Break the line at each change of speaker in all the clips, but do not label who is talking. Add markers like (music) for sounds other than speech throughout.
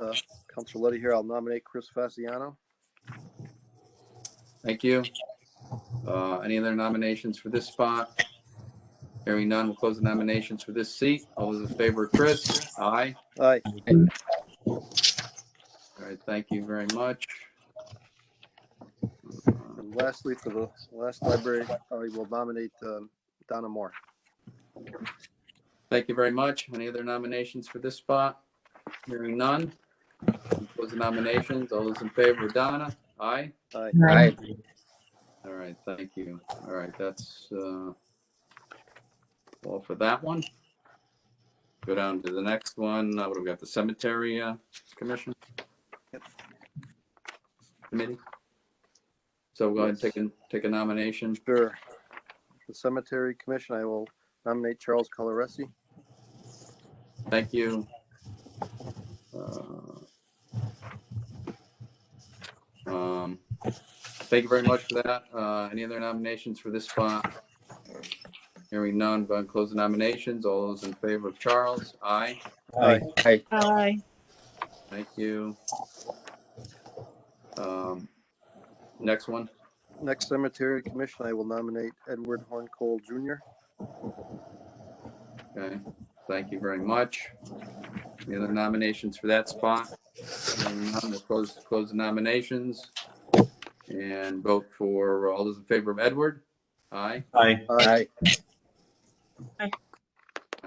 uh, Counselor Letty here, I'll nominate Chris Fasciano.
Thank you. Uh, Any other nominations for this spot? Hearing none, we'll close the nominations for this seat. All those in favor, Chris? Aye.
Aye,
All right, thank you very much.
and lastly, for the last library, I will nominate um, Donna Moore.
Thank you very much. Any other nominations for this spot? Hearing none. we'll Close the nominations. All those in favor, Donna? Aye.
Aye,
Aye.
All right, thank you. All right, that's uh, all for that one. Go down to the next one. Uh, What do we got? The Cemetery uh, Commission? Committee? So go ahead and take a, take a nomination.
sure. The Cemetery Commission, I will nominate Charles Coloresi.
Thank you. Uh, um, Thank you very much for that. Uh, Any other nominations for this spot? Hearing none, but close the nominations. All those in favor of Charles? Aye.
Aye.
Aye.
Aye.
Thank you. Um, Next one.
Next Cemetery Commission, I will nominate Edward Horn Cole Jr.
Okay. Thank you very much. Any other nominations for that spot? Hearing none, we'll Close, close the nominations and vote for all those in favor of Edward. Aye.
Aye.
Aye,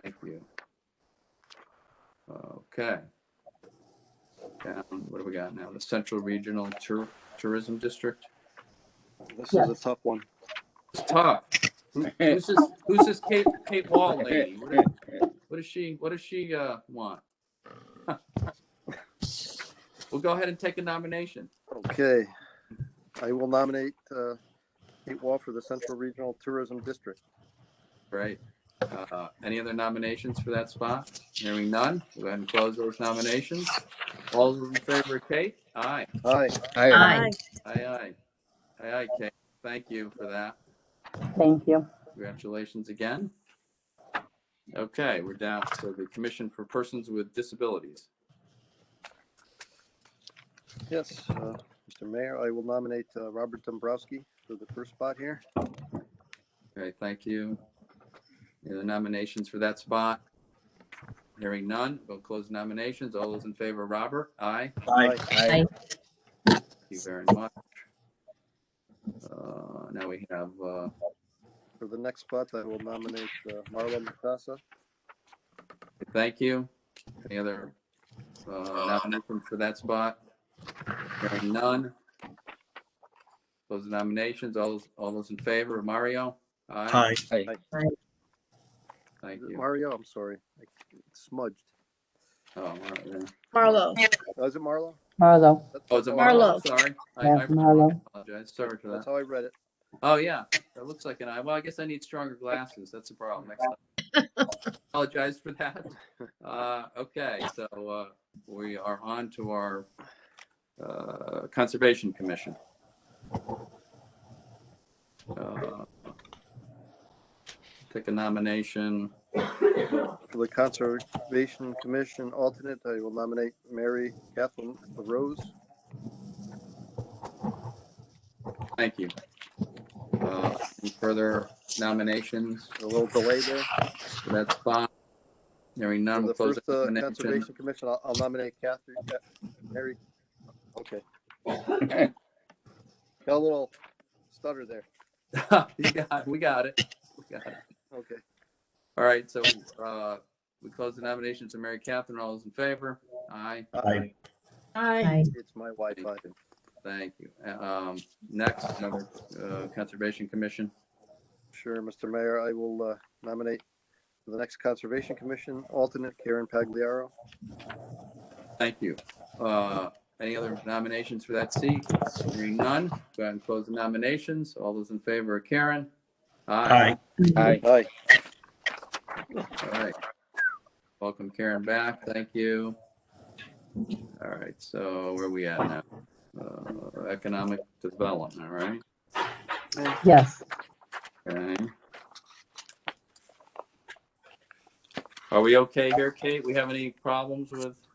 Thank you. Okay. Down, what do we got now? The Central Regional Tour- Tourism District.
this is a tough one.
It's tough. Who- Who's this, who's this Kate, Kate Wall lady? What is- What does she, what does she, uh, want? (laughs) We'll go ahead and take a nomination.
Okay, I will nominate uh, Kate Wall for the Central Regional Tourism District.
Great. Uh, Any other nominations for that spot? Hearing none, we'll go ahead and close those nominations. All those in favor of Kate? Aye.
Aye,
Aye.
Aye, aye. Aye, aye, Kate. Thank you for that.
Thank you.
Congratulations again. Okay, we're down to the Commission for Persons with Disabilities.
yes, uh, Mr. Mayor, I will nominate uh, Robert Dombrowski for the first spot here.
Okay, thank you. Any other nominations for that spot? Hearing none, we'll close nominations. All those in favor, Robert? Aye.
Aye.
Aye.
Thank you very much. Uh, Now we have, uh,
For the next spot, I will nominate uh, Marla Matassa.
thank you. Any other uh, nominations for that spot? Hearing none. Close the nominations. All, those- all those in favor, Mario?
Aye.
Thank you.
Mario, I'm sorry, I smudged.
Oh, all right, yeah.
Marlo.
Oh, Is it Marlo?
Marlo.
That's-
Oh, is it
Marlo.
Marlo? Sorry. I-
Yeah,
I
Marlo.
apologize. Sorry for that.
That's how I read it.
Oh, yeah, that looks like an eye. Well, I guess I need stronger glasses. That's a problem. Next time. Apologize for that. Uh, okay, so, uh, we are on to our, uh, Conservation Commission. Uh, Take a nomination.
For the Conservation Commission alternate, I will nominate Mary Kathleen LaRose.
Thank you. Uh, any further nominations
A little delay there.
for that spot? Hearing none,
For
we'll
the
close
first
the
uh,
nomination. (laughs)
Conservation Commission, I'll I'll nominate Catherine, Ca- Mary, okay. Got a little stutter there.
You got- We got it. We got it.
Okay,
All right, so uh, we close the nominations to Mary Catherine. All those in favor? Aye.
Aye.
Aye.
it's my Wi-Fi.
Thank you. Um, Next, another uh, Conservation Commission.
Sure, Mr. Mayor, I will uh, nominate for the next Conservation Commission alternate Karen Pagliaro.
Thank you. Uh, Any other nominations for that seat? Hearing none, go ahead and close the nominations. All those in favor of Karen?
Aye.
Aye.
Aye.
All right. Welcome Karen back. Thank you. All right, so where are we at now? Uh, Economic Development, right?
Yes.
Okay. Are we okay here, Kate? We have any problems with